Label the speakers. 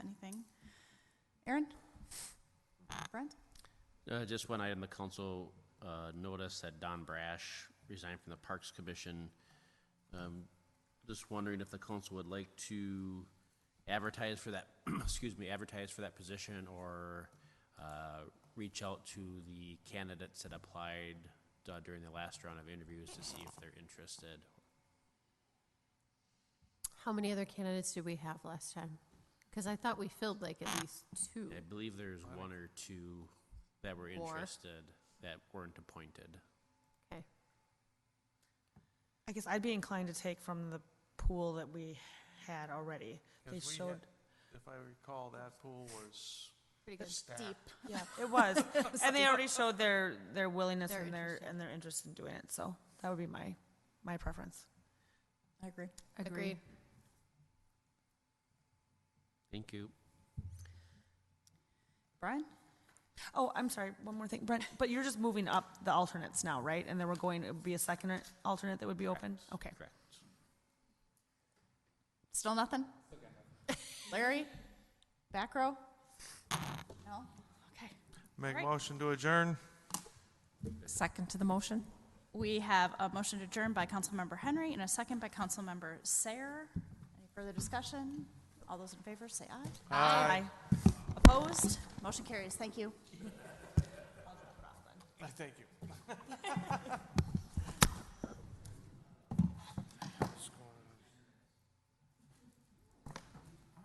Speaker 1: Aaron? Brent?
Speaker 2: Uh, Just one item, the council uh, noticed that Don Brash resigned from the Parks Commission. Um, Just wondering if the council would like to advertise for that, excuse me, advertise for that position or uh, reach out to the candidates that applied uh, during the last round of interviews to see if they're interested.
Speaker 3: How many other candidates did we have last time? Because I thought we filled like at least two.
Speaker 2: I believe there's one or two that were
Speaker 3: Four.
Speaker 2: interested that weren't appointed.
Speaker 3: Okay.
Speaker 4: I guess I'd be inclined to take from the pool that we had already. They
Speaker 5: 'Cause we
Speaker 4: showed,
Speaker 5: had- If I recall, that pool was
Speaker 3: Pretty good.
Speaker 5: stacked.
Speaker 4: yeah, it was. And they already showed their, their willingness and their, and their interest in doing it, so that would be my, my preference.
Speaker 1: I agree.
Speaker 3: Agreed.
Speaker 2: Thank you.
Speaker 1: Brian?
Speaker 4: Oh, I'm sorry, one more thing, Brent, but you're just moving up the alternates now, right? And then we're going, it would be a second alternate that would be open? Okay.
Speaker 2: Correct.
Speaker 1: Still nothing? Larry? Back row? No? Okay.
Speaker 5: Make
Speaker 1: Right.
Speaker 5: motion to adjourn?
Speaker 6: Second to the motion?
Speaker 7: We have a motion to adjourn by Councilmember Henry and a second by Councilmember Sayer. Any further discussion? All those in favor, say aye.
Speaker 4: Aye.
Speaker 7: Opposed? Motion carries. Thank you.
Speaker 5: Thank you.